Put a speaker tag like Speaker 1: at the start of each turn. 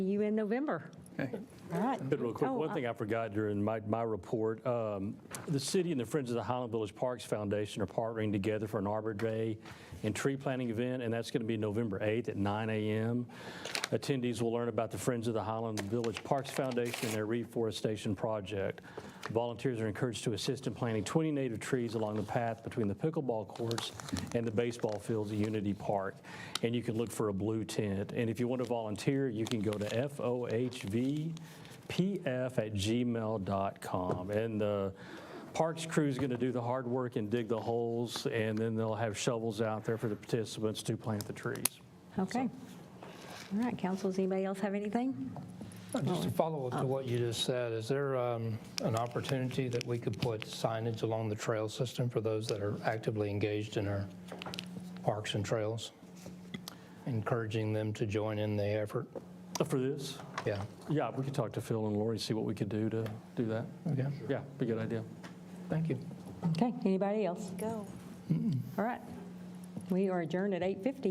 Speaker 1: in November. All right.
Speaker 2: Good, real quick,
Speaker 1: Oh,
Speaker 2: one
Speaker 1: I-
Speaker 2: thing I forgot during my, my report, um, the city and the Friends of the Highland Village Parks Foundation are partnering together for an Arbor Day and tree planting event, and that's going to be November 8th at 9 a.m. Attendees will learn about the Friends of the Highland Village Parks Foundation and their reforestation project. Volunteers are encouraged to assist in planting 20 native trees along the path between the pickleball courts and the baseball fields at Unity Park. And you can look for a blue tent. And if you want to volunteer, you can go to FOHV pf at gmail.com. And the parks crew is going to do the hard work and dig the holes, and then they'll have shovels out there for the participants to plant the trees.
Speaker 1: Oh, uh, Okay. All right, council, does anybody else have anything?
Speaker 3: Just to follow up to what you just said, is there um, an opportunity that we could put signage along the trail system for those that are actively engaged in our parks and trails? Encouraging them to join in the effort?
Speaker 2: For this?
Speaker 3: Yeah,
Speaker 2: Yeah, we could talk to Phil and Lori, see what we could do to do that.
Speaker 3: okay,
Speaker 2: Yeah, be a good idea.
Speaker 3: thank you.
Speaker 1: Okay, anybody else?
Speaker 4: Go.
Speaker 1: All right. We are adjourned at 8:50.